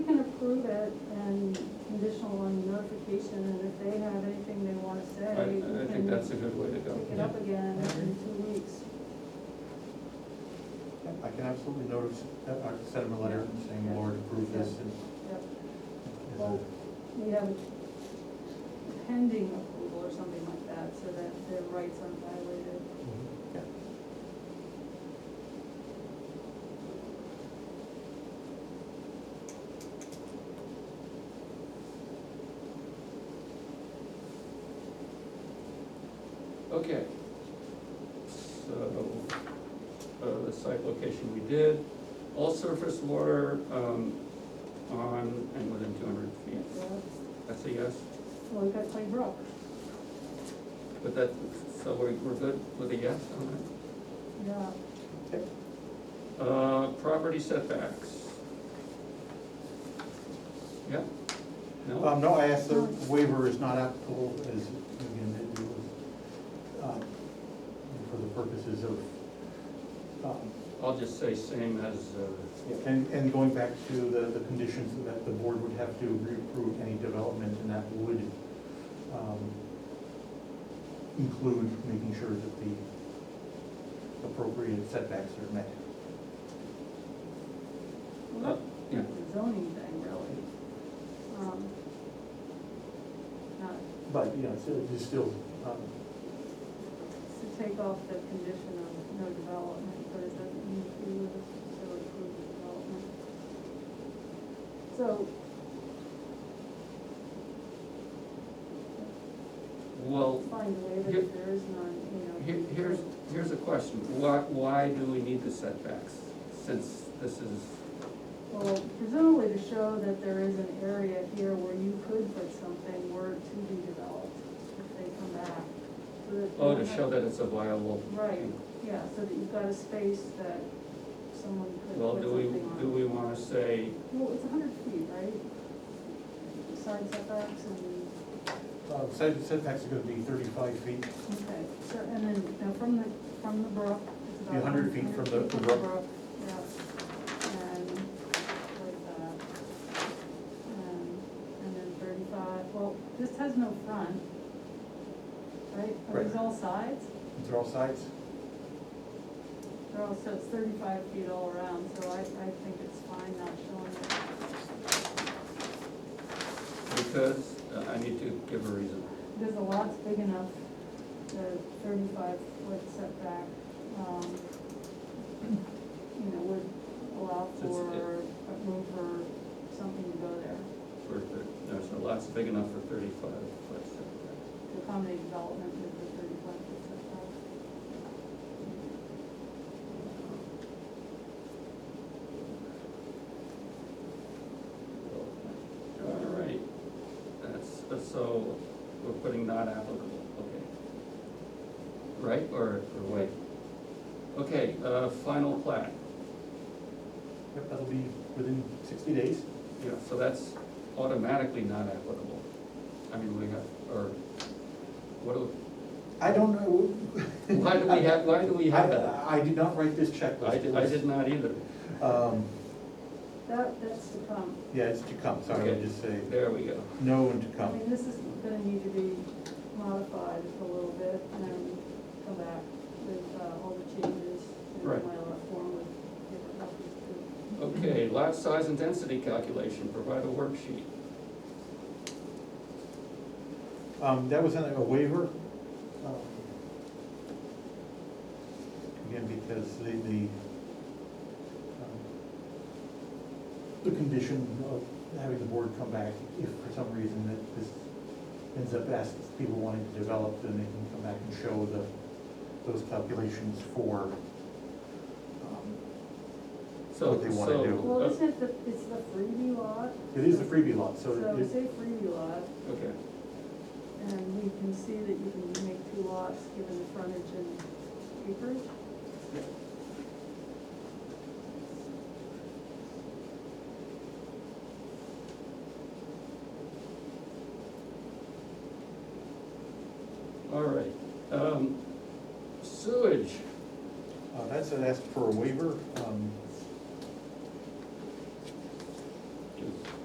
approve it and conditional on notification, and if they have anything they wanna I, say, I we think can that's a good way to go. pick it up again in two weeks. I can absolutely notice, I can send him a letter saying, the Lord, approve this and. Yep, we have pending approval or something like that, so that their rights aren't violated. Yeah. Okay. So, uh, the site location we did, all surface water, um, on and within two hundred feet. Well, That's a yes, we've got Clay Brook, but that, so we're, we're good with a yes on that? yeah, Uh, property setbacks. Yeah? No? Um, no, I asked, the waiver is not applicable as, again, it was, uh, for the purposes of, um, I'll just say same as, uh, And, and going back to the, the conditions that the board would have to reapprove any development, and that would, um, include making sure that the appropriate setbacks are met. well, uh, yeah. that's a zoning thing, really. Um, Not But, you know, it's, it's still, um, to take off the condition of no development, but it doesn't mean that we would necessarily approve the development. So, well, find a way that if there is none, you know. Here- Here's, here's a question, why, why do we need the setbacks, since this is, Well, presumably to show that there is an area here where you could put something were to be developed, if they come back. So that- oh, to show that it's a viable. Right, yeah, so that you've got a space that someone could Well, put do we, something on. do we wanna say, Well, it's a hundred feet, right? Side setbacks and. uh, set- setbacks are gonna be thirty-five feet, Okay, so, and then, now from the, from the brook, it's about. Yeah, 100 feet from the- 100 feet the brook. Yeah, and like that. And, and then thirty-five, well, this has no front, right? Are these Right. all sides? these are all sides, They're all, so it's thirty-five feet all around, so I, I think it's fine not showing it. because, uh, I need to give a reason. Because the lot's big enough, the thirty-five foot setback, um, you know, would allow It's- for a room for something to go there, For, the- no, so lots big enough for thirty-five foot setbacks. to accommodate development with the thirty-five foot setback. All right, that's, that's so, we're putting not applicable, okay. Right, or, or wait? Okay, uh, final plat, yep, that'll be within sixty days. yeah, so that's automatically not applicable. I mean, we have, or, what do, I don't know. why do we have, why do we have that? I, I did not write this checklist. I did, I did not either, Um, That, that's to come, yeah, it's to come, sorry, I Okay. just say, there we go. no and to I come. mean, this is gonna need to be modified just a little bit, and then come back with, uh, all the changes in my Right. form with different copies too. Okay, lot size and density calculation, provide a worksheet. Um, that was in a waiver. um, Again, because the, the, um, the condition of having the board come back, if for some reason that this ends up as people wanting to develop, then they can come back and show the, those calculations for, um, So, What they wanna so, do. Well, uh, isn't it the, it's the freebie lot? it is a freebie lot, so So we it, say freebie lot, uh, Okay, and we can see that you can make two lots given the frontage and acreage. all right. Um, Sewage, uh, that's, it asked for a waiver, um,